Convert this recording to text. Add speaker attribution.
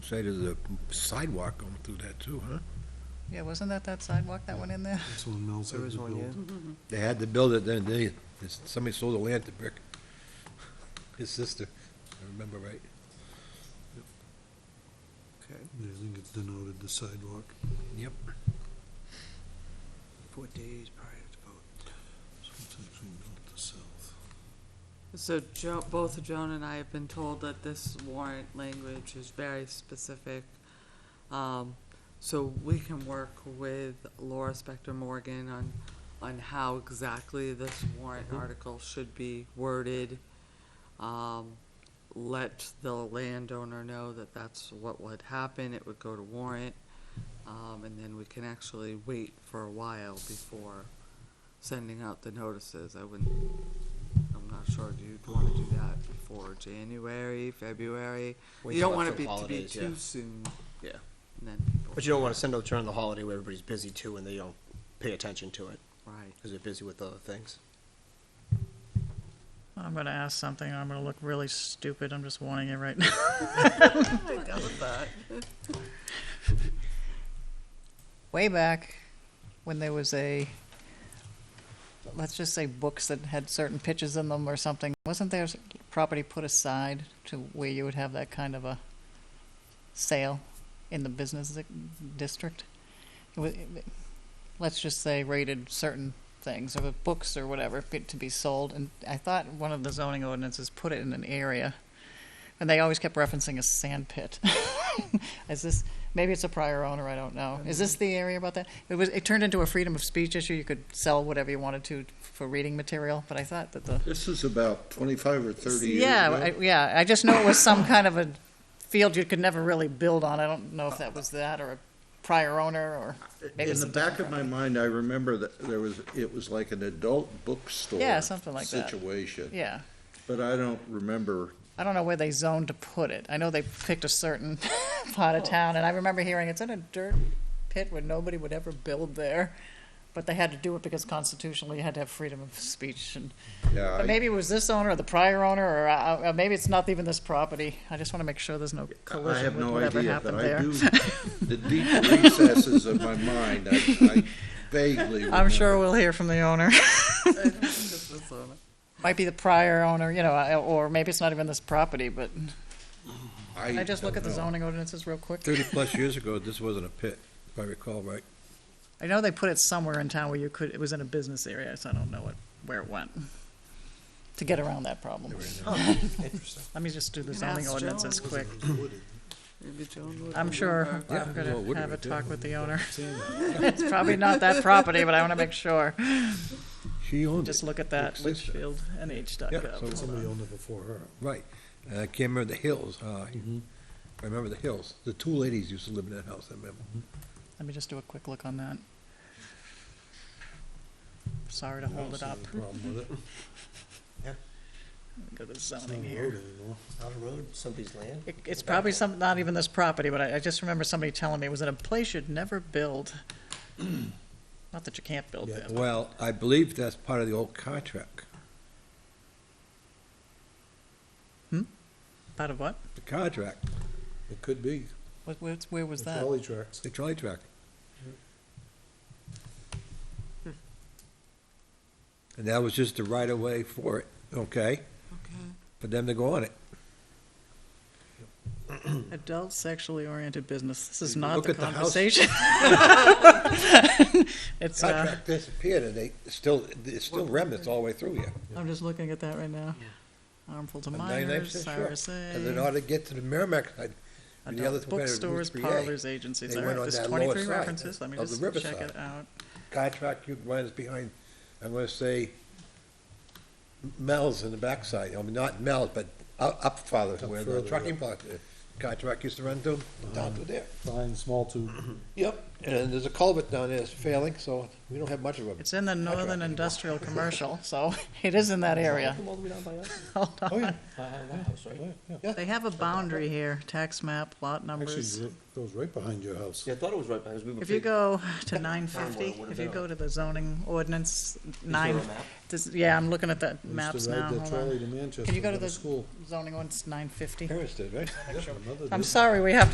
Speaker 1: side of the sidewalk going through that too, huh?
Speaker 2: Yeah, wasn't that that sidewalk that went in there?
Speaker 3: That's on Mel's
Speaker 4: There
Speaker 3: Hill
Speaker 4: is one, yeah.
Speaker 3: Build.
Speaker 1: They had to build it, then they, somebody sold the land to Brick. His sister, I remember right.
Speaker 4: Mm-hmm. Okay,
Speaker 3: Yeah, I think it's denoted the sidewalk.
Speaker 1: Yep.
Speaker 4: four days prior to vote.
Speaker 3: So it's actually not the south.
Speaker 5: So Jo, both Joan and I have been told that this warrant language is very specific. Um, so we can work with Laura Spector Morgan on, on how exactly this warrant
Speaker 4: Mm-hmm.
Speaker 5: article should be worded. Um, let the landowner know that that's what would happen, it would go to warrant. Um, and then we can actually wait for a while before sending out the notices. I wouldn't I'm not sure, do you want to do that before January, February?
Speaker 4: Wait
Speaker 5: You
Speaker 4: till
Speaker 5: don't want it
Speaker 4: after
Speaker 5: be- to be
Speaker 4: holidays, yeah.
Speaker 5: too soon.
Speaker 4: Yeah.
Speaker 5: And then people.
Speaker 4: But you don't want to send out during the holiday where everybody's busy too and they don't pay attention to it
Speaker 5: Right.
Speaker 4: because they're busy with other things.
Speaker 2: I'm gonna ask something, I'm gonna look really stupid, I'm just warning you right now. Way back, when there was a, let's just say books that had certain pictures in them or something, wasn't there s- property put aside to where you would have that kind of a sale in the business di- district? It wa- it- Let's just say rated certain things, or books or whatever, fit to be sold, and I thought one of the zoning ordinances put it in an area, and they always kept referencing a sand pit. Is this, maybe it's a prior owner, I don't know. Is this the area about that? It was, it turned into a freedom of speech issue, you could sell whatever you wanted to for reading material, but I thought that the.
Speaker 6: This is about twenty-five or thirty years
Speaker 2: Yeah,
Speaker 6: ago.
Speaker 2: I- yeah, I just know it was some kind of a field you could never really build on, I don't know if that was that, or a prior owner, or maybe
Speaker 6: In
Speaker 2: it's
Speaker 6: the
Speaker 2: a
Speaker 6: back of my mind, I remember that there was, it was like an adult bookstore.
Speaker 2: Yeah, something like that.
Speaker 6: Situation,
Speaker 2: yeah.
Speaker 6: but I don't remember.
Speaker 2: I don't know where they zoned to put it. I know they picked a certain part of town, and I remember hearing it's in a dirt pit where nobody would ever build there. But they had to do it because constitutionally you had to have freedom of speech. And
Speaker 6: Yeah,
Speaker 2: but
Speaker 6: I-
Speaker 2: maybe it was this owner or the prior owner, or, uh, uh, maybe it's not even this property. I just want to make sure there's no
Speaker 6: I
Speaker 2: collision
Speaker 6: have
Speaker 2: with
Speaker 6: no
Speaker 2: whatever
Speaker 6: idea, but
Speaker 2: happened
Speaker 6: I
Speaker 2: there.
Speaker 6: do, the deep recesses of my mind, I I vaguely remember.
Speaker 2: I'm sure we'll hear from the owner.
Speaker 5: This is, uh,
Speaker 2: Might be the prior owner, you know, I- or maybe it's not even this property. But can I just look at
Speaker 6: don't
Speaker 2: the
Speaker 6: know.
Speaker 2: zoning ordinances real quick.
Speaker 1: Thirty-plus years ago, this wasn't a pit, if I recall right.
Speaker 2: I know they put it somewhere in town where you could, it was in a business area, so I don't know what, where it went. To get around that problem.
Speaker 4: Interesting.
Speaker 2: Let me just do the
Speaker 5: Can
Speaker 2: zoning
Speaker 5: ask
Speaker 2: ordinances
Speaker 5: Joan.
Speaker 2: quick.
Speaker 5: Maybe Joan would.
Speaker 2: I'm sure
Speaker 5: remember.
Speaker 2: I'm
Speaker 1: well, it would
Speaker 2: gonna
Speaker 1: be
Speaker 2: have a
Speaker 1: right there.
Speaker 2: talk with the owner. It's probably not that property, but I wanna make sure.
Speaker 1: She owned it,
Speaker 2: Just look at that,
Speaker 1: Big sister. Yeah, so-
Speaker 2: litchfieldnh.gov.
Speaker 3: Somebody owned it before her.
Speaker 1: right. And I can't remember the hills, uh, I remember the hills. The two ladies used to live in that house, I remember.
Speaker 2: Let me just do a quick look on that. Sorry to hold it up.
Speaker 3: Problem with it.
Speaker 2: Go to
Speaker 3: It's not a
Speaker 2: zoning
Speaker 3: road
Speaker 2: here.
Speaker 3: anymore.
Speaker 4: Out of road, somebody's land.
Speaker 2: It, it's probably some, not even this property, but I, I just remember somebody telling me it was in a place you'd never build. Not that you can't build
Speaker 3: Yeah.
Speaker 2: there. but-
Speaker 1: Well, I believe that's part of the old contract.
Speaker 2: Out of what?
Speaker 1: The contract,
Speaker 3: It could be.
Speaker 2: What, where, where was
Speaker 3: The
Speaker 2: that?
Speaker 3: Trolley tracks.
Speaker 1: the trolley track. And that was just the right-of-way for it, okay?
Speaker 5: Okay.
Speaker 1: For them to go on it.
Speaker 2: Adult sexually oriented business. This is
Speaker 1: You
Speaker 2: not
Speaker 1: look
Speaker 2: the
Speaker 1: at the house.
Speaker 2: conversation. It's, uh,
Speaker 1: Contract disappeared, and they still, it's still remnants all the way through here.
Speaker 2: I'm just looking at that right now. Harmful to
Speaker 1: And 99%
Speaker 2: minors,
Speaker 1: sure. And in
Speaker 2: RSA,
Speaker 1: order to get to the Merrimack side, and the other
Speaker 2: adult
Speaker 1: competitor,
Speaker 2: bookstores,
Speaker 1: Route 3A,
Speaker 2: parlors, agencies.
Speaker 1: they
Speaker 2: All right,
Speaker 1: went on
Speaker 2: there's
Speaker 1: that lower
Speaker 2: twenty-three
Speaker 1: side
Speaker 2: references. Let me
Speaker 1: of the
Speaker 2: just check
Speaker 1: riverside.
Speaker 2: it out.
Speaker 1: Contract, you runs behind, I'm gonna say Mel's in the backside, I mean, not Mel's, but up, up farther, where the
Speaker 3: further,
Speaker 1: trucking block, uh, contract used to run to, down to there.
Speaker 3: Fine, small tube.
Speaker 1: Yep, and there's a culvert down there that's failing, so we don't have much of them.
Speaker 2: It's in the northern industrial commercial, so it is in that area.
Speaker 4: Come all the way down by us.
Speaker 2: Hold on.
Speaker 1: Oh, yeah,
Speaker 4: Uh, my house, right?
Speaker 2: They have a boundary here, tax map, lot
Speaker 3: Actually,
Speaker 2: numbers.
Speaker 3: it goes right behind your house.
Speaker 4: Yeah, I thought it was right by us. We were
Speaker 2: If you
Speaker 4: big-
Speaker 2: go to nine fifty,
Speaker 4: Farm Boy, what
Speaker 2: if you
Speaker 4: about?
Speaker 2: go to the zoning ordinance
Speaker 4: Is there a
Speaker 2: nine,
Speaker 4: map?
Speaker 2: this- yeah, I'm looking at the
Speaker 3: I used to
Speaker 2: maps
Speaker 3: ride
Speaker 2: now,
Speaker 3: that
Speaker 2: hold on.
Speaker 3: trolley to
Speaker 2: Can you
Speaker 3: Manchester
Speaker 2: go to
Speaker 3: to
Speaker 2: the
Speaker 3: school.
Speaker 2: zoning ordinance nine fifty?
Speaker 1: parents did, right?
Speaker 3: Yep, another
Speaker 2: I'm
Speaker 3: dis-
Speaker 2: sorry, we have